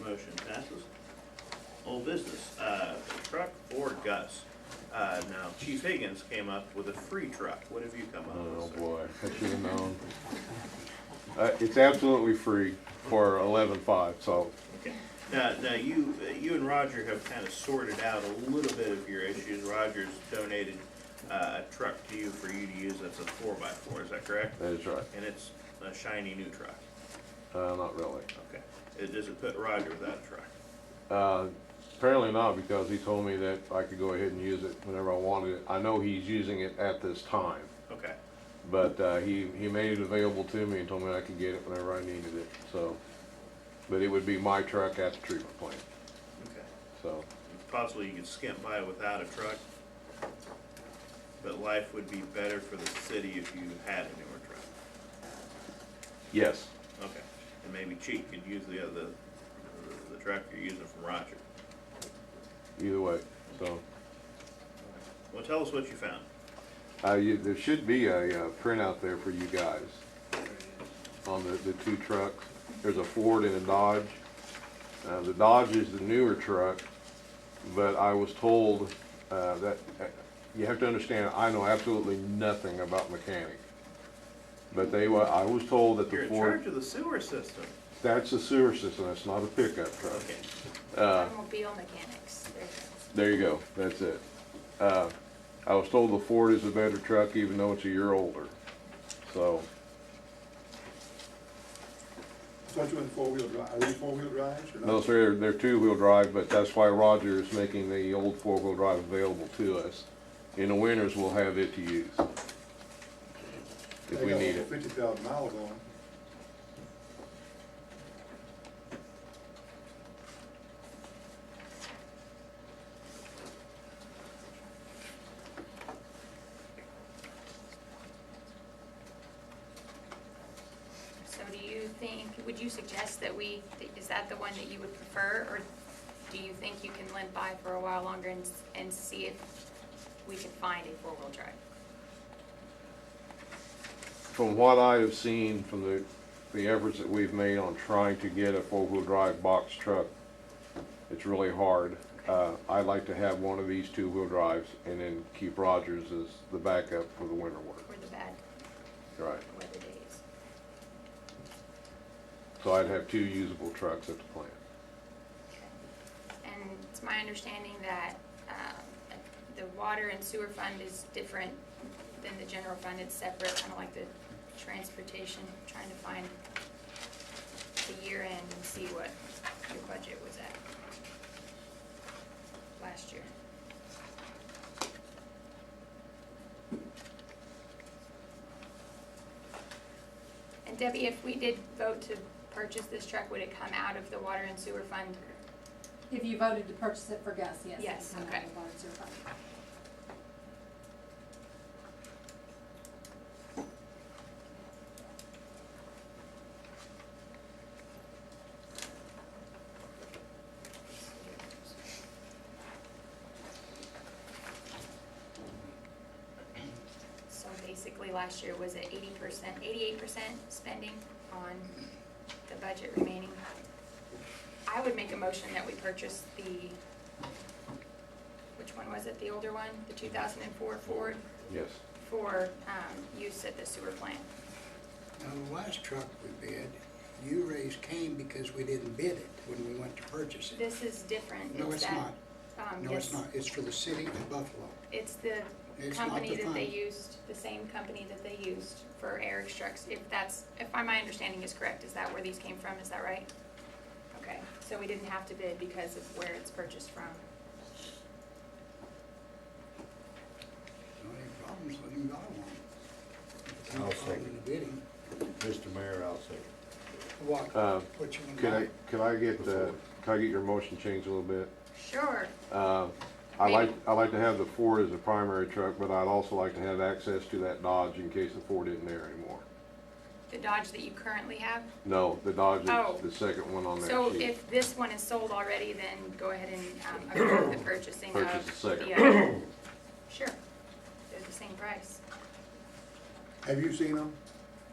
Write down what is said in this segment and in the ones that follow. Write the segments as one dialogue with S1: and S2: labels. S1: Motion passes. Old business, uh, truck or Gus? Uh, now Chief Higgins came up with a free truck. What have you come up
S2: Oh,
S1: with? sir?
S2: boy, I should have known. Uh, it's absolutely free for eleven-five, so,
S1: Okay. Now, now you, you and Roger have kind of sorted out a little bit of your issues. Roger's donated uh, a truck to you for you to use. That's a four by four, is that correct?
S2: that is right.
S1: And it's a shiny new truck.
S2: Uh, not really.
S1: Okay. It doesn't put Roger without a truck.
S2: Uh, apparently not, because he told me that I could go ahead and use it whenever I wanted it. I know he's using it at this time,
S1: Okay.
S2: but, uh, he, he made it available to me and told me I could get it whenever I needed it, so. But it would be my truck at the treatment plant,
S1: Okay.
S2: so,
S1: Possibly you could skimp by without a truck. But life would be better for the city if you had a newer truck.
S2: yes,
S1: Okay. And maybe Chief could use the other, the truck you're using from Roger.
S2: either way, so.
S1: Well, tell us what you found.
S2: Uh, you, there should be a, uh printout there for you guys on the, the two trucks. There's a Ford and a Dodge. Uh, the Dodge is the newer truck, but I was told, uh, that, uh, you have to understand, I know absolutely nothing about mechanics. But they were, I was told that
S1: You're
S2: the
S1: in charge
S2: Ford,
S1: of the sewer system.
S2: that's a sewer system, that's not a pickup truck.
S1: Okay.
S3: Automobile mechanics. There
S2: There
S3: it
S2: you go, that's it. Uh, I was told the Ford is a better truck even though it's a year older, so.
S4: Don't you in four-wheel drive, are they four-wheel drives or not?
S2: No, sir, they're, they're two-wheel drive, but that's why Roger is making the old four-wheel drive available to us. In the winters, we'll have it to use. If we need it.
S4: Fifty thousand miles on them.
S3: is. So do you think, would you suggest that we, is that the one that you would prefer? Or do you think you can limp by for a while longer and, and see if we can find a four-wheel drive?
S2: From what I have seen, from the, the efforts that we've made on trying to get a four-wheel drive box truck, it's really hard. Uh, I'd like to have one of these two-wheel drives and then keep Rogers as the backup for the winter work.
S3: for the bad
S2: Right.
S3: weather days?
S2: So I'd have two usable trucks at the plant.
S3: And it's my understanding that um, the water and sewer fund is different than the general fund, it's separate, kind of like the transportation, trying to find the year end and see what your budget was at last year. And Debbie, if we did vote to purchase this truck, would it come out of the water and sewer fund?
S5: If you voted to purchase it for Gus, yes.
S3: Yes,
S5: I know,
S3: okay.
S5: I voted to approve.
S3: So basically, last year was at eighty percent, eighty-eight percent spending on the budget remaining. I would make a motion that we purchase the, which one was it, the older one, the two thousand and four Ford,
S2: Yes.
S3: for, um, use at the sewer plant.
S6: Now, the last truck we bid, you raised Cain because we didn't bid it when we went to purchase it.
S3: This is different,
S6: No,
S3: it's
S6: it's
S3: that,
S6: not.
S3: um,
S6: No, it's
S3: yes,
S6: not. It's for the city of Buffalo.
S3: it's the
S6: It's not
S3: company
S6: the
S3: that they
S6: fund.
S3: used, the same company that they used for Eric's trucks, if that's, if my- my understanding is correct, is that where these came from, is that right? Okay, so we didn't have to bid because of where it's purchased from.
S6: No any problems with him, got one.
S7: I'll
S6: Can't call
S7: second.
S6: him to bid him.
S7: Mr. Mayor, I'll second.
S6: What,
S2: Uh,
S6: what you
S2: Can
S6: gonna
S2: I,
S6: buy?
S2: can I get, uh, can I get your motion changed a little bit?
S3: Sure,
S2: Uh, I like, I like to have the Ford as a primary truck, but I'd also like to have access to that Dodge in case the Ford isn't there anymore.
S3: the Dodge that you currently have,
S2: No, the Dodge
S3: Oh.
S2: is the second one on
S3: so
S2: that sheet.
S3: if this one is sold already, then go ahead and, um, approve the purchasing of the
S2: Purchase the second.
S3: other. Sure, they're the same price.
S4: Have you seen them?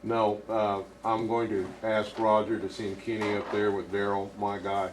S2: No, uh, I'm going to ask Roger to send Kenny up there with Daryl, my guy,